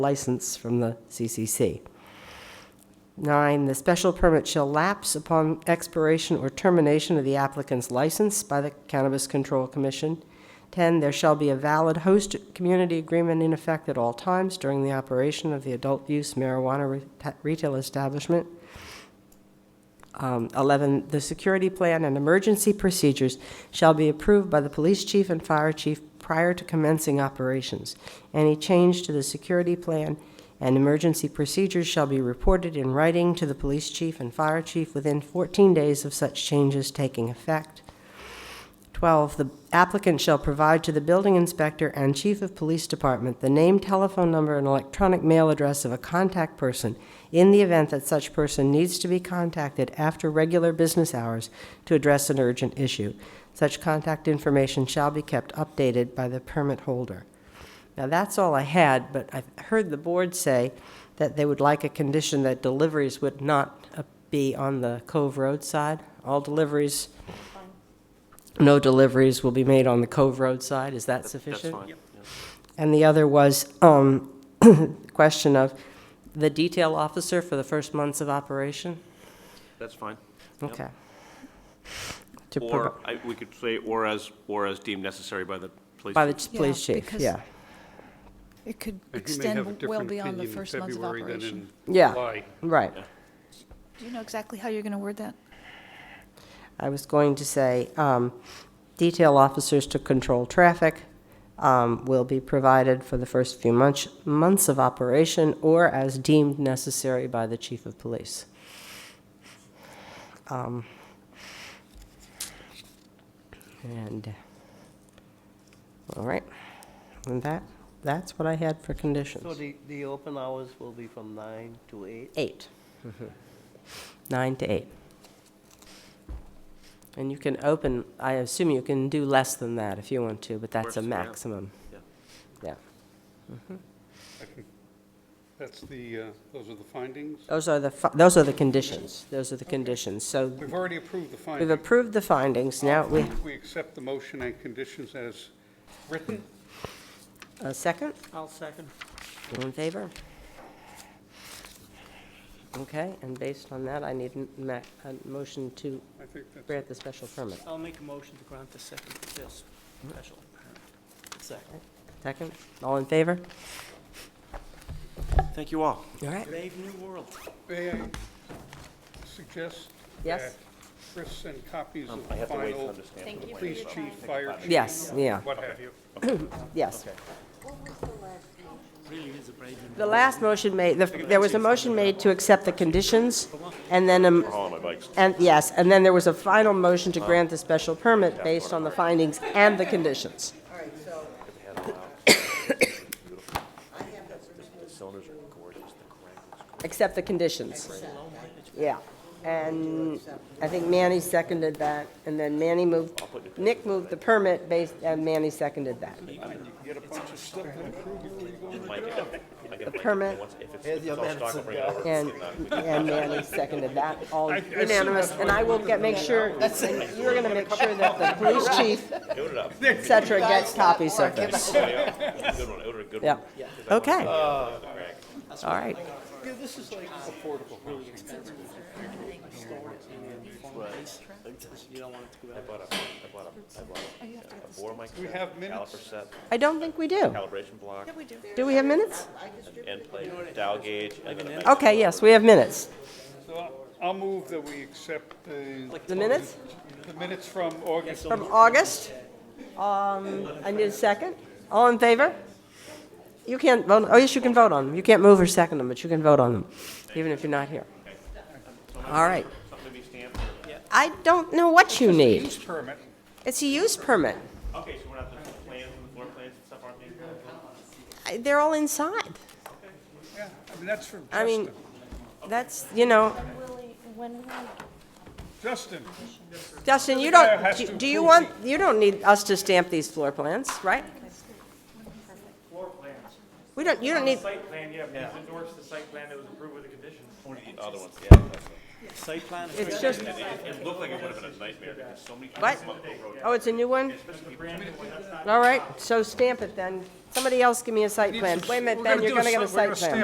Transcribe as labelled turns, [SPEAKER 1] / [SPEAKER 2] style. [SPEAKER 1] license from the CCC. Nine, the special permit shall lapse upon expiration or termination of the applicant's license by the Cannabis Control Commission. Ten, there shall be a valid host community agreement in effect at all times during the operation of the adult-use marijuana re- retail establishment. Um, 11, the security plan and emergency procedures shall be approved by the police chief and fire chief prior to commencing operations. Any change to the security plan and emergency procedures shall be reported in writing to the police chief and fire chief within 14 days of such changes taking effect. 12, the applicant shall provide to the building inspector and chief of police department the name, telephone number, and electronic mail address of a contact person in the event that such person needs to be contacted after regular business hours to address an urgent issue. Such contact information shall be kept updated by the permit holder. Now, that's all I had, but I heard the board say that they would like a condition that deliveries would not uh, be on the Cove Road side. All deliveries no deliveries will be made on the Cove Road side, is that sufficient?
[SPEAKER 2] That's fine.
[SPEAKER 1] And the other was, um, question of the detail officer for the first months of operation?
[SPEAKER 2] That's fine. Yep.
[SPEAKER 1] Okay. To
[SPEAKER 2] Or,
[SPEAKER 1] provi-
[SPEAKER 2] I- we could say, or as, or as deemed necessary by the police.
[SPEAKER 1] By the
[SPEAKER 2] chief.
[SPEAKER 1] ch-
[SPEAKER 3] Yeah,
[SPEAKER 1] police chief,
[SPEAKER 3] because-
[SPEAKER 1] yeah.
[SPEAKER 3] It could
[SPEAKER 4] But you may have a
[SPEAKER 3] extend well beyond
[SPEAKER 4] different
[SPEAKER 3] the
[SPEAKER 4] opinion in
[SPEAKER 3] first month of
[SPEAKER 4] February than
[SPEAKER 3] operation.
[SPEAKER 4] in
[SPEAKER 1] Yeah.
[SPEAKER 4] July.
[SPEAKER 1] Right.
[SPEAKER 3] Do you know exactly how you're going to word that?
[SPEAKER 1] I was going to say, um, detail officers to control traffic um, will be provided for the first few months, months of operation or as deemed necessary by the chief of police. Um, And, all right, and that, that's what I had for
[SPEAKER 5] So
[SPEAKER 1] conditions.
[SPEAKER 5] the, the open hours will be from nine to eight?
[SPEAKER 1] Eight. Nine to eight. And you can open, I assume you can do less than that if you want to, but that's a
[SPEAKER 2] Works, yeah.
[SPEAKER 1] maximum.
[SPEAKER 2] Yeah.
[SPEAKER 1] Yeah.
[SPEAKER 4] I can- That's the, uh, those are the findings.
[SPEAKER 1] Those are the, fi- those are the conditions. Those are the conditions. So
[SPEAKER 4] We've already approved the
[SPEAKER 1] we've
[SPEAKER 4] findings.
[SPEAKER 1] approved the findings. Now, we,
[SPEAKER 4] We accept the motion and conditions as written.
[SPEAKER 1] a second?
[SPEAKER 5] I'll second.
[SPEAKER 1] All in favor? Okay, and based on that, I need a ma- a motion to
[SPEAKER 4] I think that's,
[SPEAKER 1] grant the special permit.
[SPEAKER 5] I'll make a motion to grant the second, this special Second.
[SPEAKER 1] Second? All in favor?
[SPEAKER 2] Thank you all.
[SPEAKER 1] All right.
[SPEAKER 5] Brave new world.
[SPEAKER 4] may I suggest
[SPEAKER 1] Yes.
[SPEAKER 4] that Chris send copies of
[SPEAKER 2] Um, I
[SPEAKER 4] the
[SPEAKER 2] have to wait for
[SPEAKER 4] final
[SPEAKER 2] them to stand.
[SPEAKER 3] Thank you for
[SPEAKER 4] police
[SPEAKER 3] your
[SPEAKER 4] chief,
[SPEAKER 3] time.
[SPEAKER 4] fire chief.
[SPEAKER 1] Yes, yeah,
[SPEAKER 4] What have you.
[SPEAKER 1] yes. The last motion made, the- there was a motion made to accept the conditions, and then, um,
[SPEAKER 2] All on Oh, my bikes.
[SPEAKER 1] and, yes, and then there was a final motion to grant the special permit based on the findings and the conditions.
[SPEAKER 2] The cylinders are gorgeous. The crank is
[SPEAKER 1] Accept the conditions. Yeah. And I think Manny seconded that, and then Manny moved, Nick moved the permit based, and Manny seconded that. The permit, and, and Manny seconded that, all unanimous. And I will get, make sure, and you're gonna make sure that the police chief, et cetera, gets copies of this.
[SPEAKER 2] Good one, I ordered a good
[SPEAKER 1] Yeah.
[SPEAKER 2] one.
[SPEAKER 1] Okay. All right.
[SPEAKER 4] We have minutes.
[SPEAKER 2] Caliper set,
[SPEAKER 1] I don't think we do.
[SPEAKER 2] calibration block,
[SPEAKER 1] Do we have minutes?
[SPEAKER 2] end plate, dial gauge, and then a
[SPEAKER 1] Okay, yes, we have minutes.
[SPEAKER 4] So I'll- I'll move that we accept the.
[SPEAKER 1] The minutes?
[SPEAKER 4] The minutes from August.
[SPEAKER 1] From August. Um, I need a second. All in favor? You can't vote, oh, yes, you can vote on them. You can't move or second them, but you can vote on them, even if you're not here. All right. I don't know what you need.
[SPEAKER 4] Use permit.
[SPEAKER 1] It's a use permit.
[SPEAKER 2] Okay, so we're not, the plans and the floor plans and stuff aren't being.
[SPEAKER 1] I- They're all inside.
[SPEAKER 4] Yeah, I mean, that's from
[SPEAKER 1] I mean,
[SPEAKER 4] Justin.
[SPEAKER 1] that's, you know,
[SPEAKER 4] Justin,
[SPEAKER 1] Justin, you
[SPEAKER 4] Mayor
[SPEAKER 1] don't,
[SPEAKER 4] has
[SPEAKER 1] do-
[SPEAKER 4] to
[SPEAKER 1] do you
[SPEAKER 4] approve
[SPEAKER 1] want, you don't need us to stamp these floor plans, right?
[SPEAKER 6] Floor plans.
[SPEAKER 1] We don't, you don't need,
[SPEAKER 6] Site plan, yeah, but he's endorsed the site plan that was approved with the conditions.
[SPEAKER 2] The other ones, yeah.
[SPEAKER 5] Site plan is
[SPEAKER 1] It's just,
[SPEAKER 2] It looked like it would have been a nightmare, because so many
[SPEAKER 1] what? Oh, it's a new one? All right, so stamp it then. Somebody else give me a site plan. Wait a minute, Ben, you're gonna get a site plan.